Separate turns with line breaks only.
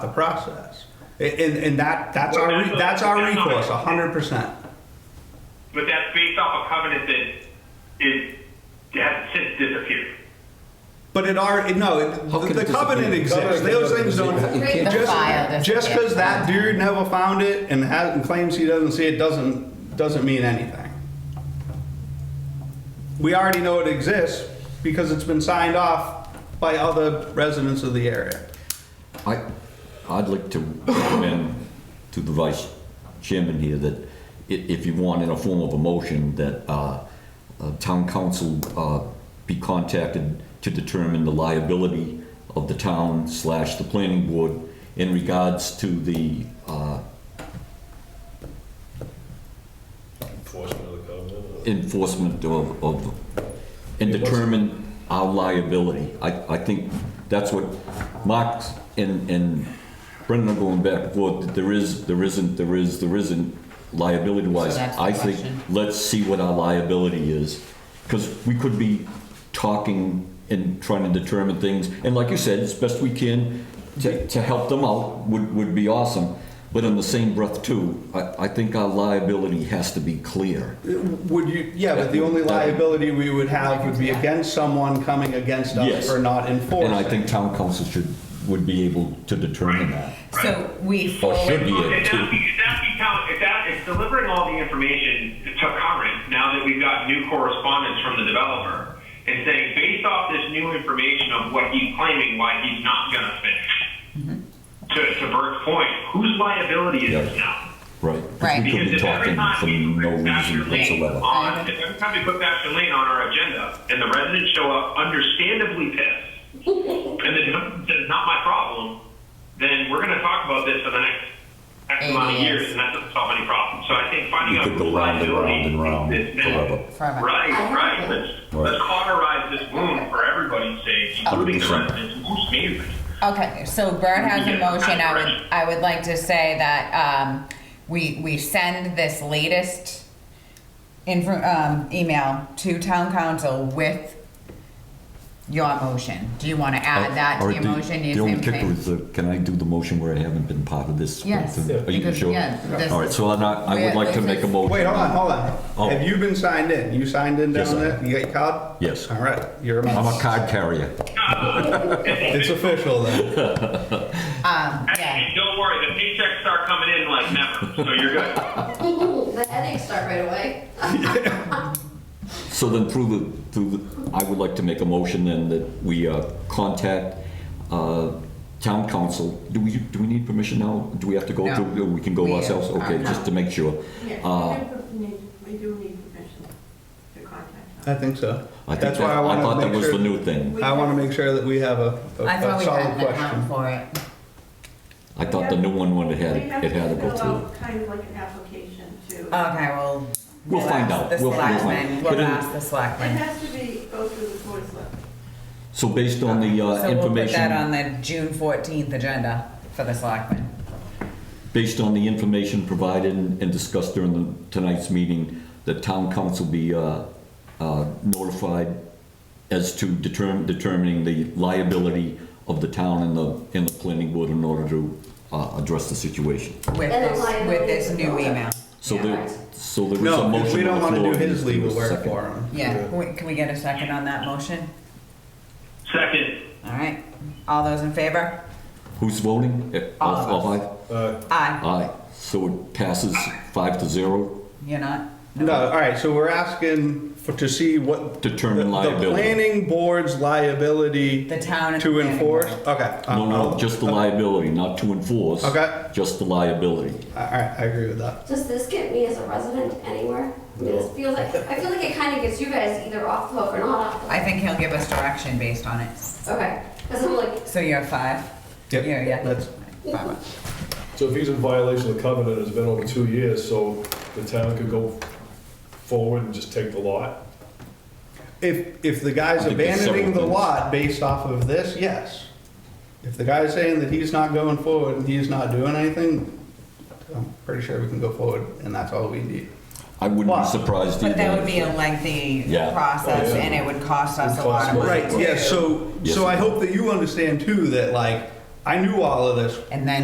the process. A- And, and that, that's our, re- that's our recourse, hundred percent.
But that's based off a covenant that is, has since disappeared.
But it already, no, it-
How can
the
it
covenant
disappear?
exists,
Covenant
those
can
things
never
don't.
disappear. It
can't- The file
Just,
doesn't
just
get
because that
found.
dude never found it and has, and claims he doesn't see it, doesn't, doesn't mean anything. We already know it exists because it's been signed off by other residents of the area.
I, I'd like to recommend to the vice chairman here that i- if you want, in a form of a motion, that uh, uh, town council uh, be contacted to determine the liability of the town slash the planning board in regards to the, uh,
Enforcement of the covenant.
enforcement of, of, and determine our liability. I, I think that's what Mark and, and Brendan are going back and forth, that there is, there isn't, there is, there isn't liability wise.
So that's the
I think,
question.
let's see what our liability is, because we could be talking and trying to determine things, and like you said, as best we can, to, to help them out would, would be awesome. But in the same breath too, I, I think our liability has to be clear.
Would you, yeah, but the only
That-
liability we would have would be against someone coming against us
Yes.
for not enforcing.
And I think town council should, would be able to determine that.
So we
Or
forward,
should be able
If that,
to.
if that become, if that, if delivering all the information to current, now that we've got new correspondence from the developer, and saying, based off this new information of what he's claiming, why he's not gonna finish, to, to Bert's point, whose liability is this
Yeah.
now?
Right.
Right.
We could be
Because if every
talking
time
for
we
no
put Thatcher
reason
Lane
whatsoever.
on- If every time we put Thatcher Lane on our agenda, and the residents show up understandably pissed, and the developer says, not my problem, then we're gonna talk about this for the next X
Eight
amount of
years.
years, and that doesn't solve any problem. So I think finding
We
out
could
who
go round and round
liability
and round
is now-
forever.
Forever.
Right, right, let's,
Right.
let's cauterize this wound for everybody's sake, including the
100%.
residents, most neighbors.
okay, so Bert has a motion, I would, I would like to say that, um, we, we send this latest info, um, email to town council with your motion. Do you wanna add that
Uh, Oh, Or
to your
the-
motion? Do you
The only
think-
kicker is, the- can I do the motion where I haven't been part of this?
Yes,
Are you
because,
sure?
yeah, this-
All right, so then I, I
Wait,
would like to
this
make a
is-
motion.
Wait, hold on, hold on.
Oh.
Have you been signed in? You signed in
Yes,
down
I
there? You got your card?
Yes.
All right, you're a
I'm a
member.
card carrier.
It's official then.
Um, yeah.
And don't worry, the paychecks start coming in like never, so you're good.
The headaches start right away.
So then through the, through the, I would like to make a motion then that we uh, contact uh, town council. Do we, do we need permission now? Do we have to go
No.
through, we can
We,
go
uh,
ourselves? Okay,
no.
just to make sure. Uh,
Yeah, we do need- we do need permission to contact
I
them.
think so.
I think
That's
that,
why I
I thought
want to
that
make
was the
sure,
new thing.
I want to make sure that we have a, a-
I
a
thought we
solid
had the time
question.
for it.
I thought the new one would have
We have
had, it had to go
fill
through.
out Kind of like an application to, it
Okay, well.
We'll find
ask
out.
The
We'll- we'll find-
selectmen,
But
we'll
in-
ask the selectmen.
has to be, go through the board of selectmen.
So based on the uh,
So we'll put that on
information,
the June fourteenth agenda for the selectmen.
based on the information provided and and discussed during the, tonight's meeting, the town council be uh, uh, notified as to determine, determining the liability of the town and the, and the planning board in order to uh, address the situation.
with
And the
this, with
liability
this
of the
new
owner.
email.
So
Yeah.
there, so there is a
No,
motion on the
because we don't want to
floor.
do his
Just
legal
a
work
second.
for him.
Yeah, Wait, can we get a second on that motion?
Second,
All right, all those in favor?
Who's voting? Eh,
All of
five?
Uh,
Aye,
Aye, so it passes five to zero.
you're not?
No, all right, so we're asking for, to see what.
Determine
the- The
liability.
planning board's liability.
The town and the
To
planning
enforce,
board.
Uh, okay. um,
No, no, just the
All
liability, not to enforce.
Okay.
Just the liability.
right, I agree with that.
Does this get me as a resident anywhere? I mean, this feels like, I feel like it kind of gets you guys either off the hook or not off the hook.
I think he'll give us direction based on it.
Okay, because I'm like,
So you're a five?
Yep,
Yeah, yeah.
that's-
Five.
So if he's in violation of the covenant, it's been over two years, so the town could go forward and just take the lot?
If, if the guy's
I think there's
abandoning the
several things.
lot based off of this, yes. If the guy's saying that he's not going forward and he's not doing anything, I'm pretty sure we can go forward and that's all we need.
I wouldn't
Well,
be surprised either.
But that would be
if-
a lengthy
Yeah.
process
Oh, yeah.
and it would cost us
It
a lot of
costs
money.
more.
Right, yeah, so,
Yes.
so I hope that you understand too that like,
I knew all of this
and then